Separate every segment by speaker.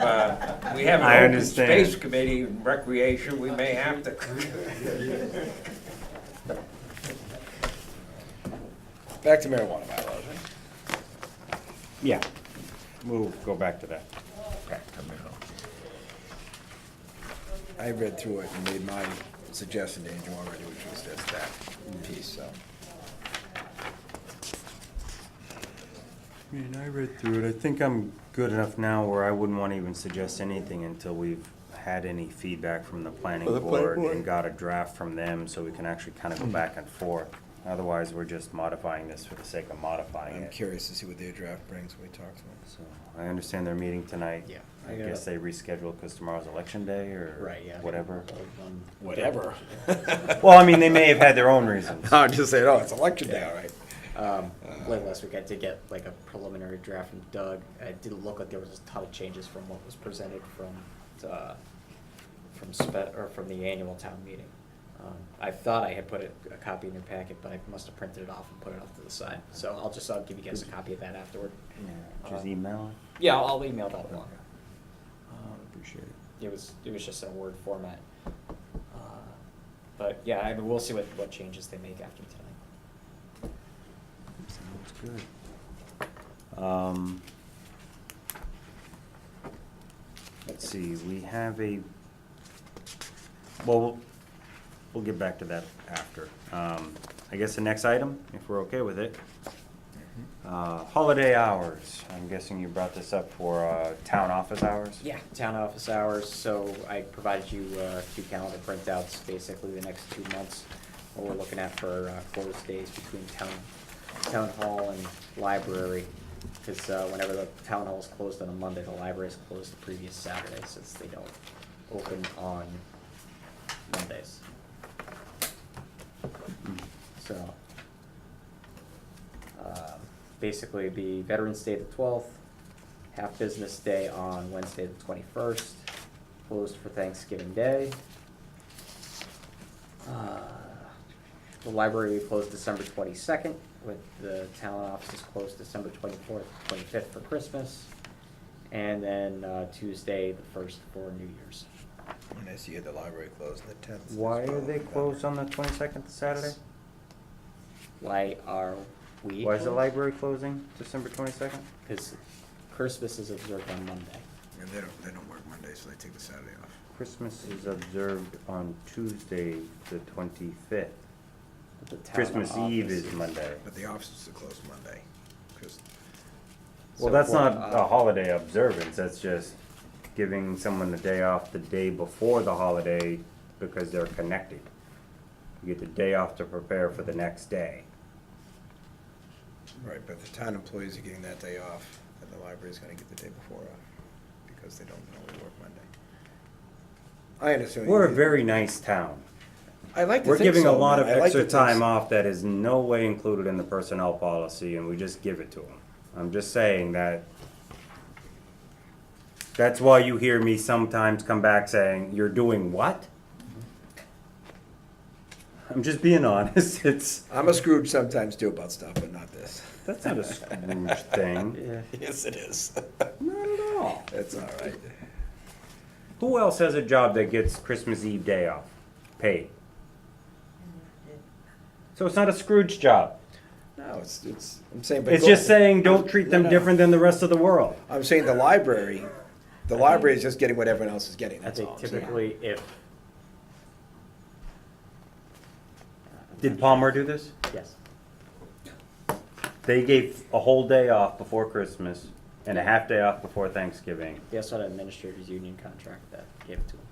Speaker 1: Uh, We have
Speaker 2: I
Speaker 1: an open
Speaker 2: understand.
Speaker 1: space committee and recreation, we may have to.
Speaker 3: Back to marijuana bylaws, right?
Speaker 2: Yeah, we'll go back to that.
Speaker 3: Back to marijuana. I read through it and made my suggestion to Andrew already, which was just that piece, so.
Speaker 2: I mean, I read through it. I think I'm good enough now where I wouldn't want to even suggest anything until we've had any feedback from the planning
Speaker 4: the planning
Speaker 2: board
Speaker 4: board.
Speaker 2: and got a draft from them so we can actually kind
Speaker 5: Hmm.
Speaker 2: of go back and forth. Otherwise, we're just modifying this for the sake of modifying
Speaker 3: I'm
Speaker 2: it.
Speaker 3: curious to see what their draft brings when we talk to them.
Speaker 2: So I understand their meeting tonight.
Speaker 5: Yeah.
Speaker 2: I guess they rescheduled because tomorrow's election day or
Speaker 5: Right, yeah.
Speaker 2: whatever.
Speaker 5: Um,
Speaker 3: Whatever.
Speaker 2: Well, I mean, they may have had their own reasons.
Speaker 3: I'll just say, oh, it's election day, all right.
Speaker 5: Um, Like last week, I did get like a preliminary draft from Doug. It didn't look like there was a ton of changes from what was presented from, uh, from spe- or from the annual town meeting. Um, I thought I had put it- a copy in your packet, but I must have printed it off and put it off to the side. So I'll just, I'll give you guys a copy of that afterward.
Speaker 2: Yeah, Just email it.
Speaker 5: Yeah, I'll I'll email that along. Um,
Speaker 3: Appreciate it.
Speaker 5: it was it was just in a word format. Uh, But yeah, I mean, we'll see what, what changes they make after tonight.
Speaker 2: Sounds good. Um, Let's see, we have a, well, we'll- we'll get back to that after. Um, I guess the next item, if we're okay with it.
Speaker 3: Mm-hmm.
Speaker 2: Uh, Holiday hours, I'm guessing you brought this up for uh, town office hours?
Speaker 5: Yeah, town office hours, so I provided you uh, two calendar printouts, basically the next two months. What we're looking at for uh, closed days between town, town hall and library. Because whenever the town hall is closed on a Monday, the library is closed the previous Saturday, since they don't open on Mondays.
Speaker 2: Mm-hmm.
Speaker 5: So, um, basically, it'd be Veterans Day the twelfth, half business day on Wednesday the twenty-first, closed for Thanksgiving Day. Uh, The library will be closed December twenty-second, with the town offices closed December twenty-fourth, twenty-fifth for Christmas, and then uh, Tuesday the first for New Year's.
Speaker 3: And this year, the library closed on the tenth.
Speaker 2: Why are they closed on the twenty-second Saturday?
Speaker 5: Why are we?
Speaker 2: Why is the library closing December twenty-second?
Speaker 5: Because Christmas is observed on Monday.
Speaker 3: And they don't, they don't work Monday, so they take the Saturday off.
Speaker 2: Christmas is observed on Tuesday, the twenty-fifth.
Speaker 5: but the town
Speaker 2: Christmas Eve
Speaker 5: office-
Speaker 2: is Monday.
Speaker 3: But the offices are closed Monday. 'cause-
Speaker 2: Well,
Speaker 5: So
Speaker 2: that's
Speaker 5: for,
Speaker 2: not a
Speaker 5: uh,
Speaker 2: holiday observance, that's just giving someone the day off the day before the holiday because they're connected. You get the day off to prepare for the next day.
Speaker 3: Right, but the town employees are getting that day off, and the library's gonna get the day before off, because they don't normally work Monday. I understand. what you
Speaker 2: We're a
Speaker 3: mean.
Speaker 2: very nice town.
Speaker 3: I like to
Speaker 2: We're
Speaker 3: think
Speaker 2: giving a
Speaker 3: so,
Speaker 2: lot of
Speaker 3: man. I like to
Speaker 2: extra
Speaker 3: think
Speaker 2: time
Speaker 3: so.
Speaker 2: off that is no way included in the personnel policy, and we just give it to them. I'm just saying that. That's why you hear me sometimes come back saying, you're doing what? I'm just being honest, it's,
Speaker 3: I'm a Scrooge sometimes too about stuff, but not this.
Speaker 2: that's not a Scrooge thing.
Speaker 5: Yeah.
Speaker 3: Yes, it is.
Speaker 2: Not at all.
Speaker 3: That's all right.
Speaker 2: Who else has a job that gets Christmas Eve day off, paid? So it's not a Scrooge job.
Speaker 3: No, it's, it's, I'm saying, but.
Speaker 2: It's
Speaker 3: go-
Speaker 2: just saying, don't treat them
Speaker 3: No, no.
Speaker 2: different than the rest of the world.
Speaker 3: I'm saying the library, the library is just getting what everyone else is getting,
Speaker 5: I
Speaker 3: that's all
Speaker 5: think
Speaker 3: I'm saying.
Speaker 5: typically if,
Speaker 2: Did Palmer do this?
Speaker 5: yes,
Speaker 2: They gave a whole day off before Christmas and a half day off before Thanksgiving.
Speaker 5: they also had an administrators union contract that gave it to them.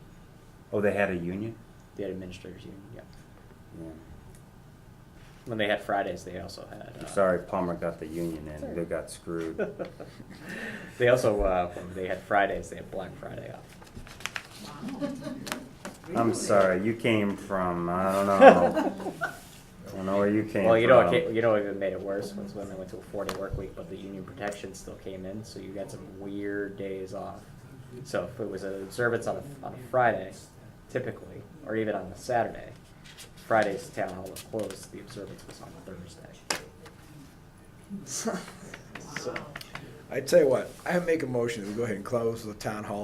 Speaker 2: Oh, they had a union?
Speaker 5: They had administrators union, yeah. When they had Fridays, they also had.
Speaker 2: I'm
Speaker 5: uh,
Speaker 2: sorry, Palmer got the union and they got screwed.
Speaker 5: They also, uh, when they had Fridays, they had Black Friday off.
Speaker 2: I'm sorry, you came from, I don't know. I don't know where you came from. um,
Speaker 5: Well, you know, what ca- you know, what even made it worse was when they went to a four-day work week, but the union protection still came in, so you got some weird days off. So if it was an observance on a, on a Friday, typically, or even on a Saturday, Friday's town hall was closed, the observance was on Thursday. So,
Speaker 3: I tell you what, I make a motion that we go ahead and close the town hall